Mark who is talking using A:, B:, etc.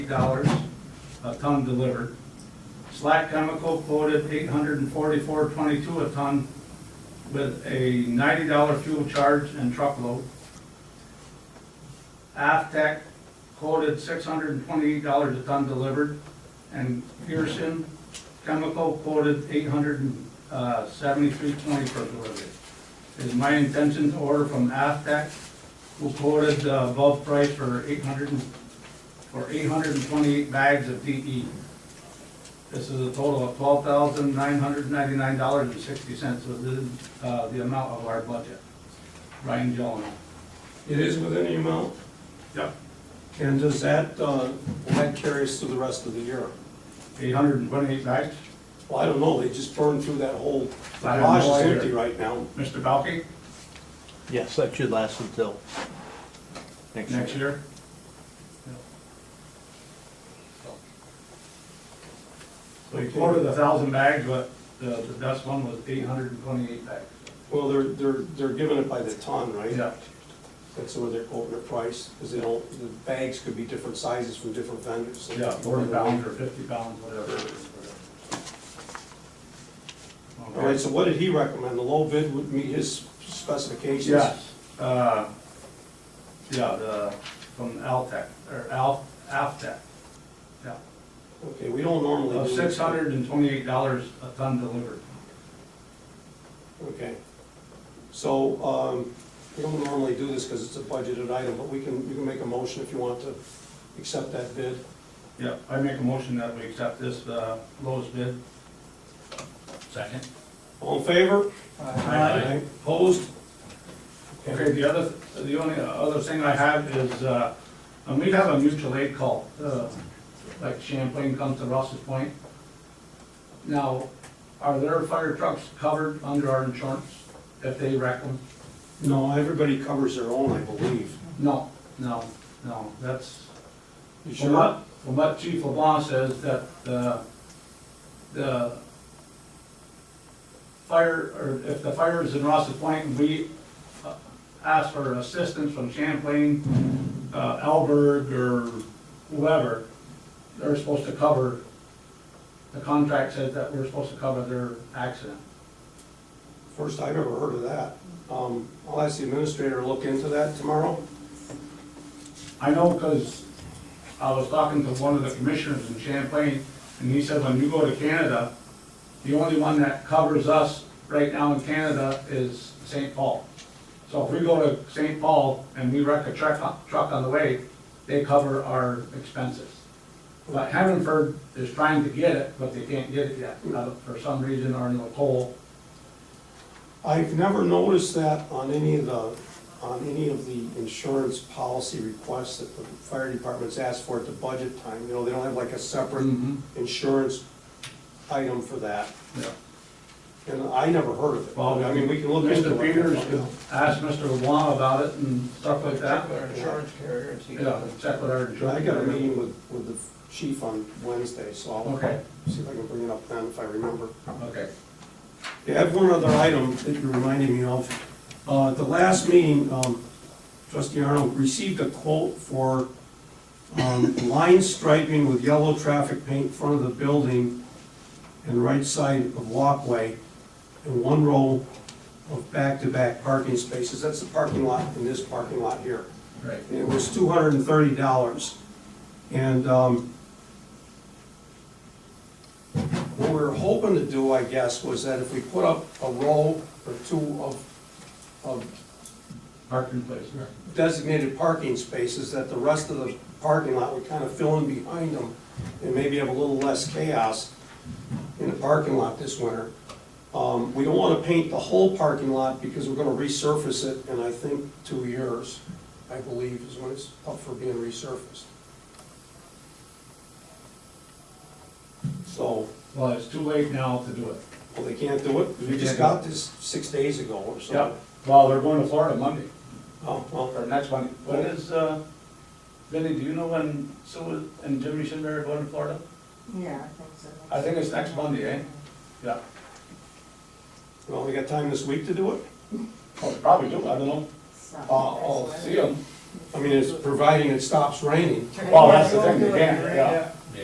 A: dollars a ton delivered. Slack Chemical quoted eight hundred and forty-four twenty-two a ton with a ninety dollar fuel charge and truckload. Aftech quoted six hundred and twenty-eight dollars a ton delivered, and Pearson Chemical quoted eight hundred and uh, seventy-three twenty per delivery. It is my intention to order from Aftech, who quoted uh, above price for eight hundred and, for eight hundred and twenty-eight bags of DE. This is a total of twelve thousand nine hundred ninety-nine dollars and sixty cents, so this is uh, the amount of our budget. Brian Jones.
B: It is within the amount,
A: Yep.
B: and does that, uh, will that carry us through the rest of the year?
A: Eight hundred and twenty-eight bags.
B: Well, I don't know, they just burned through that whole,
A: I
B: the
A: don't know
B: garage is
A: either.
B: empty right now.
A: Mr. Balky,
C: Yes, that should last until
A: next year. So you quoted a thousand bags, but the, the best one was eight hundred and twenty-eight bags.
B: Well, they're, they're, they're giving it by the ton, right?
A: Yeah.
B: That's where they're quoting the price, because they don't, the bags could be different sizes from different vendors. so-
A: Yeah, forty pounds or fifty pounds, whatever. it is.
B: All right, so what did he recommend? The low bid would meet his specifications?
A: Yes, uh, yeah, the, from Altech, or Al, Aftech, yeah.
B: Okay, we don't normally do
A: Of
B: this.
A: Uh, six hundred and twenty-eight dollars a ton delivered.
B: Okay. So, um, we don't normally do this because it's a budgeted item, but we can, you can make a motion if you want to accept that bid.
A: Yeah, I make a motion that we accept this, uh, lowest bid. Second.
B: All in favor?
A: Aye.
B: Opposed?
A: Okay, the other, the only other thing I have is, uh, and we have a mutual aid call, uh, like Champlain comes to Ross's Point. Now, are their fire trucks covered under our insurance if they wreck them?
B: No, everybody covers their own, I believe.
A: No, no, no, that's,
B: You
A: from
B: sure?
A: what, from what Chief LeBlanc says, that, uh, the fire, or if the fire is in Ross's Point, we uh, ask for assistance from Champlain, uh, Alberg, or whoever, they're supposed to cover, the contract says that we're supposed to cover their accident.
B: First I've ever heard of that. Um, I'll ask the administrator to look into that tomorrow.
A: I know because I was talking to one of the commissioners in Champlain, and he said, when you go to Canada, the only one that covers us right now in Canada is St. Paul. So if we go to St. Paul and we wreck a truck, truck on the way, they cover our expenses. But Hannaford is trying to get it, but they can't get it yet, uh, for some reason, or in the coal.
B: I've never noticed that on any of the, on any of the insurance policy requests that the fire department's asked for at the budget time. You know, they don't have like a separate
A: Mm-hmm.
B: insurance item for that.
A: Yeah.
B: And I never heard of it.
A: Well,
B: I mean, we can look into it.
A: Mr. Peters asked Mr. LeBlanc about it and stuff like that.
D: Check with our insurance carrier and see.
A: Yeah, check with our
B: I
A: insurance.
B: got a meeting with, with the chief on Wednesday, so I'll
A: Okay.
B: see if I can bring it up then if I remember.
A: Okay.
B: Okay, I have one other item that you're reminding me of. Uh, at the last meeting, um, trustee Arnold received a quote for, um, line striping with yellow traffic paint in front of the building and right side of walkway and one row of back-to-back parking spaces. That's the parking lot in this parking lot here.
A: Right.
B: It was two hundred and thirty dollars. And, um, what we were hoping to do, I guess, was that if we put up a row or two of, of
A: Parking place,
B: designated parking spaces, that the rest of the parking lot would kind of fill in behind them and maybe have a little less chaos in the parking lot this winter. Um, we don't want to paint the whole parking lot because we're going to resurface it in, I think, two years, I believe, is when it's up for being resurfaced. So,
A: Well, it's too late now to do it.
B: well, they can't do it. We just got this six days ago or something.
A: Well, they're going to Florida Monday,
B: Oh, well,
A: or next Monday. When is, uh, Benny, do you know when Sue and Jimmy Schindler are going to Florida?
E: Yeah, I think so.
A: I think it's next Monday, eh? Yeah.
B: well, we got time this week to do it?
A: Oh, they probably do, I don't know.
E: Something
A: I'll, I'll
E: that's
A: Oh, see them.
F: I mean, it's providing it stops raining.
B: Turn it
A: Well,
B: on.
A: that's the Oh, thing, you can't, yeah.